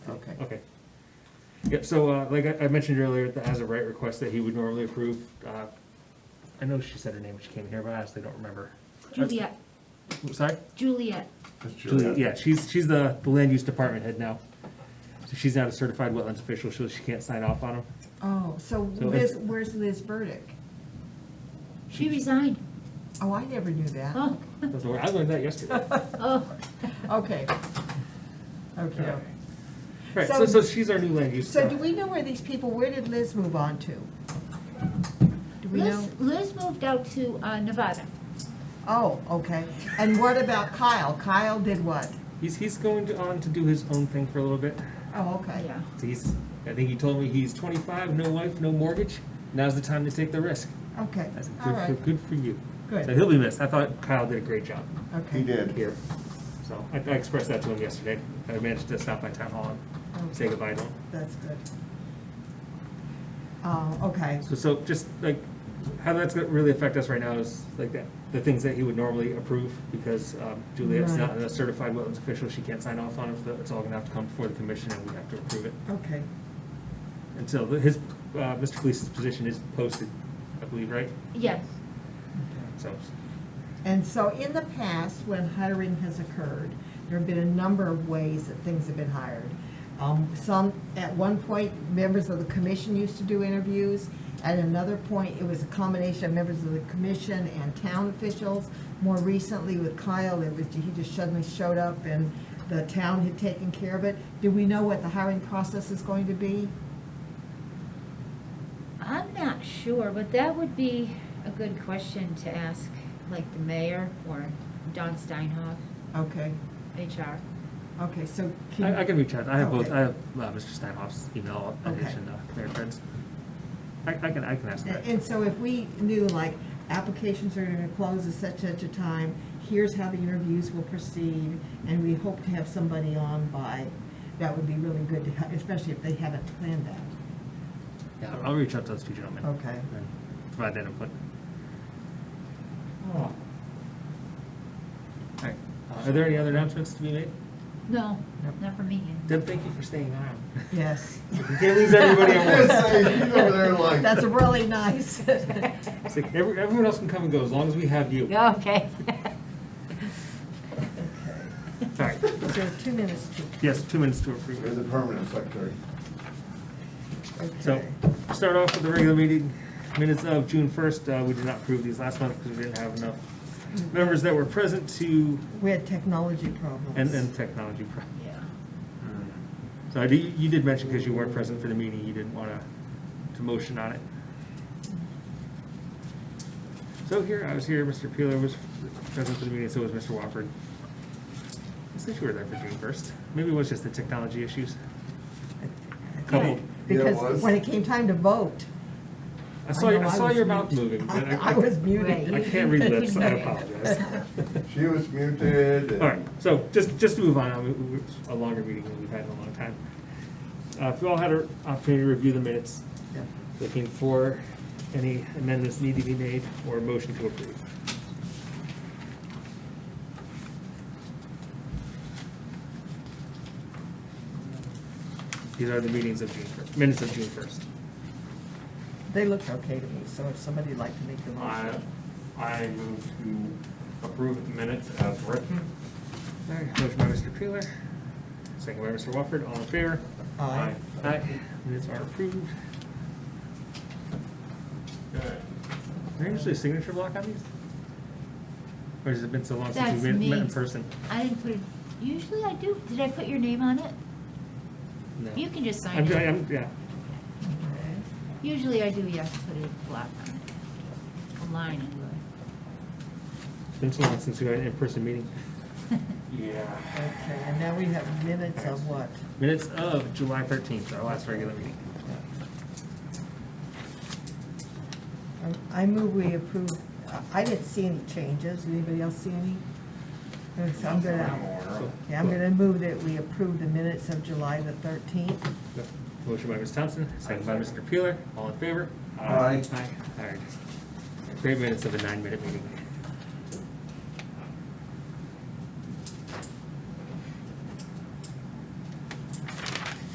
Yep, so, uh, like I, I mentioned earlier, the as a right request that he would normally approve, uh, I know she said her name when she came here, but I honestly don't remember. Juliet, Sorry? Juliet, That's Juliet. Julie, yeah, she's, she's the, the land use department head now. So she's not a certified wetlands official, so she can't sign off on them. Oh, so So Liz, it's- where's Liz Burdick? she resigned. Oh, I never knew that. Oh, That's the word- I learned that yesterday. oh, Okay. Okay. Right, so, so she's our new land use. So do uh, we know where these people, where did Liz move on to? Do we know? Liz, Liz moved out to uh, Nevada. Oh, okay. And what about Kyle? Kyle did what? He's, he's going to, on to do his own thing for a little bit. Oh, okay. Yeah, So He's, I think he told me he's twenty-five, no wife, no mortgage. Now's the time to take the risk. Okay, I said, all good for, right, good for you. So good, he'll be missed. I thought Kyle did a great job He okay. did. here. So I, I expressed that to him yesterday. I managed to stop by town hall and say Okay. goodbye to him. That's good. Uh, okay, So, so just like, how that's gonna really affect us right now is like that, the things that he would normally approve, because um, Juliet's not Right. a certified wetlands official, she can't sign off on it, so it's all gonna have to come before the commission and we have to approve it. okay. And so the- his, uh, Mr. Clease's position is posted, I believe, right? yes, So, And so in the past, when hiring has occurred, there have been a number of ways that things have been hired. Um, Some, at one point, members of the commission used to do interviews. At another point, it was a combination of members of the commission and town officials. More recently with Kyle, it was, he just suddenly showed up and the town had taken care of it. Do we know what the hiring process is going to be? I'm not sure, but that would be a good question to ask, like the mayor or Don Steinhoff, Okay, HR. okay, so I, I can, can reach out, I have both, Okay. I have uh, Mr. Steinhoff's email, and his Okay. and uh, their friends. I, I can, I can ask that. And and so if we knew, like, applications are gonna close at such and such a time, here's how the interviews will proceed, and we hope to have somebody on by, that would be really good to, ha- especially if they haven't planned that. Yeah, I'll reach out to those two gentlemen. Okay. And provide that input. Oh. Alright, Uh, are there any other announcements to be made? No, Nope. not for me. Deb, thank you for staying on. Yes. You can't lose everybody I at was gonna say, he's over there like- That's really nice. once. It's like, every- everyone else can come and go, as long as we have you. Okay. Sorry, So two minutes to, yes, two minutes to There's approve. a permanent secretary. So, okay. start off with the regular meeting minutes of June first, uh, we did not approve these last month because we didn't have enough members that were present to, We had technology problems. and, and technology. pro- Yeah. So I did, you did mention, because you weren't present for the meeting, you didn't want to, to motion on it. So here, I was here, Mr. Peeler was present for the meeting, so was Mr. Wofford. I said you were there for June first. Maybe it was just the technology issues. Couple. Yeah, it Because was. when it came time to vote. I saw, know I saw was your mouth muted. moving, but I, I I was I muted. I can't read lips, I apologize. She was muted. and- All right, so just, just to move on, I mean, it's a longer meeting than we've had in a long time. Uh, If you all had an opportunity to review the minutes, Yep. looking for any amendments need to be made or a motion to approve. These are the meetings of June first, minutes of June first. They looked okay to me, so if somebody'd like to make the I, motion. I move to approve the minutes as written. Motion by Mr. Peeler, second by Mr. Wofford, all in favor? Aye. Aye. Minutes are approved. Okay. Is there actually a signature block on these? Or has it been so long since That's we've met- met me. in person? I didn't put, it- usually I do. Did I put your name on it? No. You can just I'm, sign it. I'm, yeah. Okay. Usually I do, yes, put a block on it, a line anyway. Been so long since we had an in-person meeting. Yeah. Okay, and now we have minutes of what? Minutes of July thirteenth, our last regular meeting. Um, I move we approve, I- I didn't see any changes, anybody else see any? And so I'm I'm gonna, aware of. yeah, I'm gonna move that we approve the minutes of July the thirteenth. Motion by Ms. Thompson, second by Mr. Peeler, all in favor? Aye. Aye, all right. Great minutes of a nine-minute meeting.